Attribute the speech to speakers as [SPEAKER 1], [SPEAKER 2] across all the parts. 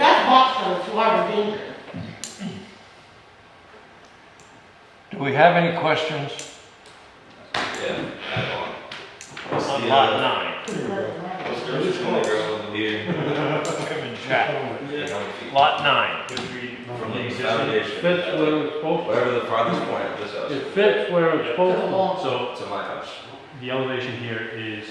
[SPEAKER 1] also it's water danger.
[SPEAKER 2] Do we have any questions?
[SPEAKER 3] Yeah, add on. What's
[SPEAKER 4] On
[SPEAKER 3] the,
[SPEAKER 4] lot
[SPEAKER 3] uh,
[SPEAKER 4] nine.
[SPEAKER 3] what's the original ground here?
[SPEAKER 2] Jack.
[SPEAKER 3] Yeah, how many feet?
[SPEAKER 4] Lot nine.
[SPEAKER 3] From the
[SPEAKER 4] It
[SPEAKER 3] foundation,
[SPEAKER 5] Fits where it's supposed
[SPEAKER 3] wherever the farthest point of this
[SPEAKER 5] to, it
[SPEAKER 3] house,
[SPEAKER 5] fits where it's supposed to.
[SPEAKER 1] So.
[SPEAKER 3] to my house.
[SPEAKER 6] The elevation here is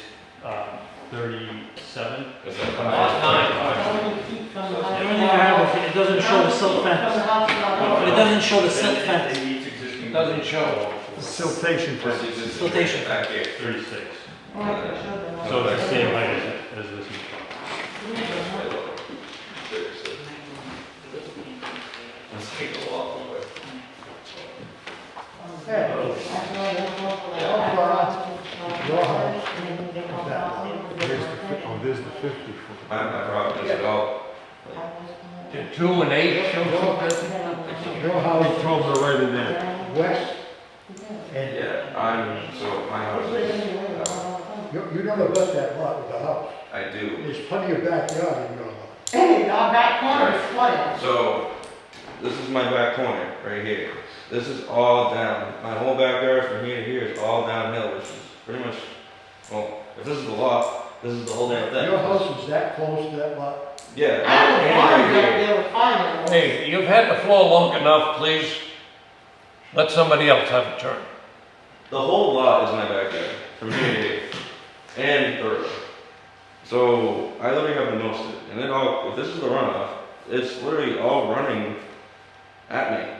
[SPEAKER 6] um, 37.
[SPEAKER 3] Is that
[SPEAKER 4] Lot nine.
[SPEAKER 1] How many feet from the
[SPEAKER 4] The
[SPEAKER 1] house?
[SPEAKER 4] only thing I have is it doesn't show the silt
[SPEAKER 1] From the
[SPEAKER 4] fence.
[SPEAKER 1] house to the
[SPEAKER 4] But
[SPEAKER 1] house.
[SPEAKER 4] it doesn't show the silt fence.
[SPEAKER 6] It meets existing.
[SPEAKER 2] Doesn't show.
[SPEAKER 7] siltation
[SPEAKER 3] What's
[SPEAKER 7] fence.
[SPEAKER 3] the existing
[SPEAKER 4] Flotation.
[SPEAKER 3] Back here.
[SPEAKER 6] 36.
[SPEAKER 1] Oh, I can show them all.
[SPEAKER 6] So it's the same height as as this. one.
[SPEAKER 3] That's way lower. Seriously. Let's take a walk away.
[SPEAKER 1] Fair. That's why they don't want to-
[SPEAKER 3] Yeah.
[SPEAKER 7] Your house.
[SPEAKER 1] And then they don't want to-
[SPEAKER 7] There's the, fi- oh, there's the fifty
[SPEAKER 3] My,
[SPEAKER 7] foot.
[SPEAKER 3] my problem is at all.
[SPEAKER 2] Did two and eight show something?
[SPEAKER 7] Your house comes right in there. West, and
[SPEAKER 3] Yeah, I'm, so my house is, uh,
[SPEAKER 7] you, you don't abut that lot with the house.
[SPEAKER 3] I do.
[SPEAKER 7] There's plenty of backyard in your lot.
[SPEAKER 1] Hey, our back corner is flooded.
[SPEAKER 3] So, this is my back corner, right here. This is all down, my whole backyard from here to here is all downhill, which is pretty much, well, if this is the lot, this is the whole damn thing.
[SPEAKER 7] Your house is that close to that lot?
[SPEAKER 3] Yeah.
[SPEAKER 1] I have a farm
[SPEAKER 3] and right
[SPEAKER 1] that
[SPEAKER 3] here.
[SPEAKER 1] they were finding.
[SPEAKER 2] Hey, you've had the floor long enough, please. Let somebody else have a turn.
[SPEAKER 3] The whole lot is my backyard, from here to here, and the river. So I literally have the most of it, and it all. If this is the runoff, it's literally all running at me.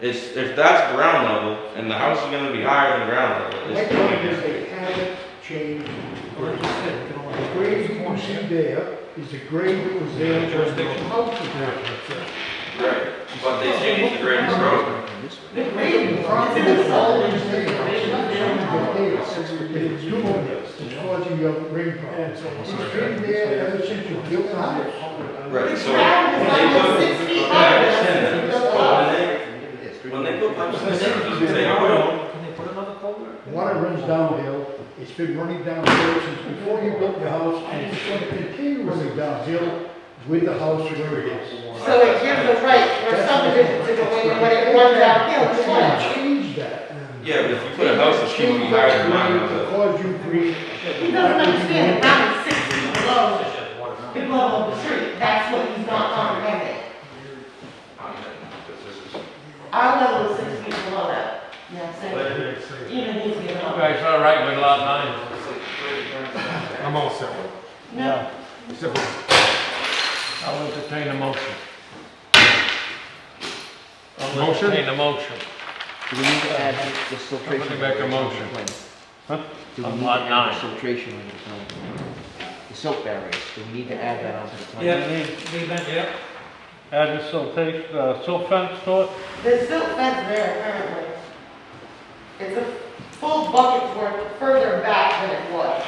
[SPEAKER 3] It's if that's ground level, and the house is gonna be higher than ground level.
[SPEAKER 7] My
[SPEAKER 3] It's
[SPEAKER 7] point is they haven't changed. The grade you can see there is the grade that was there during the house was there.
[SPEAKER 3] right, but they changed the grade of the road.
[SPEAKER 1] The green front is all in the
[SPEAKER 7] It's doing this, it's causing your rain problems. It's been there ever since you built the house.
[SPEAKER 3] Right, so
[SPEAKER 1] ground is
[SPEAKER 3] when
[SPEAKER 1] almost
[SPEAKER 3] they
[SPEAKER 1] six
[SPEAKER 3] put,
[SPEAKER 1] feet
[SPEAKER 3] okay, I
[SPEAKER 1] high.
[SPEAKER 3] understand that. But When they, when they put pipes in there, they "Oh, are.
[SPEAKER 4] Can they put another culvert?
[SPEAKER 7] Water runs downhill, it's been running downhill since before you built your house, and it's gonna continue running downhill with the house where it is.
[SPEAKER 1] So it gives the right for subdivision to go in when it runs downhill,
[SPEAKER 7] But
[SPEAKER 1] it's
[SPEAKER 7] you
[SPEAKER 1] flooded.
[SPEAKER 7] can change that.
[SPEAKER 3] Yeah, but if you put a house that's gonna be higher than ground level.
[SPEAKER 7] Cause you grief.
[SPEAKER 1] He doesn't understand that I'm six feet below the level of the street. That's what he's not comprehending.
[SPEAKER 3] I'm in, because this is.
[SPEAKER 1] Our level is six feet below that. You know what I'm saying? Even he's giving
[SPEAKER 2] You
[SPEAKER 1] up.
[SPEAKER 2] guys all right with lot nine?
[SPEAKER 7] I'm all set with
[SPEAKER 1] No,
[SPEAKER 2] I'll entertain a motion. I'll
[SPEAKER 7] Motion?
[SPEAKER 2] entertain a motion.
[SPEAKER 8] Do we need to add the filtration?
[SPEAKER 2] Somebody make a
[SPEAKER 8] Do
[SPEAKER 2] motion.
[SPEAKER 8] we
[SPEAKER 2] On
[SPEAKER 8] need to
[SPEAKER 2] lot
[SPEAKER 8] add
[SPEAKER 2] nine.
[SPEAKER 8] the filtration on the plan? The silt barriers, do we need to add that onto the plan?
[SPEAKER 4] Yeah, they, they meant, yeah.
[SPEAKER 5] Add the silt, take, uh, silt fence to it.
[SPEAKER 1] there's still fence there apparently. It's a full bucket's worth further back than it was.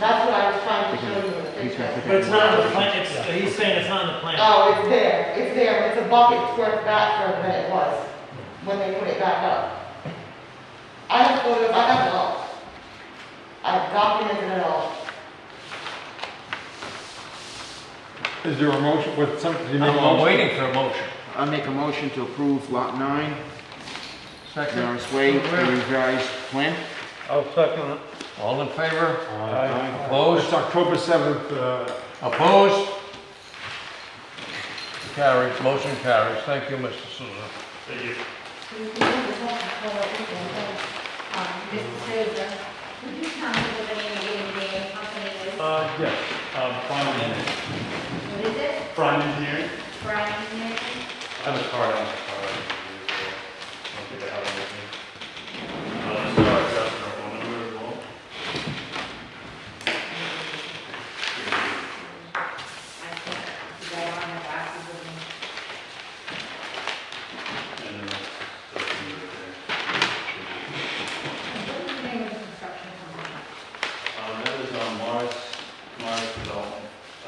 [SPEAKER 1] That's what I was trying to show you in the
[SPEAKER 8] He's gonna
[SPEAKER 1] picture.
[SPEAKER 8] put
[SPEAKER 4] But it's not on the
[SPEAKER 8] that.
[SPEAKER 4] plan, it's, he's saying it's not on the plan.
[SPEAKER 1] Oh, it's there, it's there, it's a bucket's worth back from than it was, when they put it back up. I have photos, I have it all. I've documented it all.
[SPEAKER 5] Is there a motion with some, you
[SPEAKER 2] I'm- I'm waiting for a motion.
[SPEAKER 8] I make a motion to approve lot nine,
[SPEAKER 2] Second,
[SPEAKER 8] Norris Way, the revised plan.
[SPEAKER 5] I'll second it.
[SPEAKER 2] all in favor?
[SPEAKER 5] Aye.
[SPEAKER 2] Opposed?
[SPEAKER 5] It's October seventh, uh,
[SPEAKER 2] Opposed? Carries, motion carries. Thank you, Mr. Souza.
[SPEAKER 6] Thank you.
[SPEAKER 9] Mr. Souza, would you tell me what the name of your engineering company is?
[SPEAKER 6] Uh, yes, um, Prime Engineering.
[SPEAKER 9] What is it?
[SPEAKER 6] Prime Engineering.
[SPEAKER 9] Brian Engineering?
[SPEAKER 6] I have a card on it. Uh, Uh,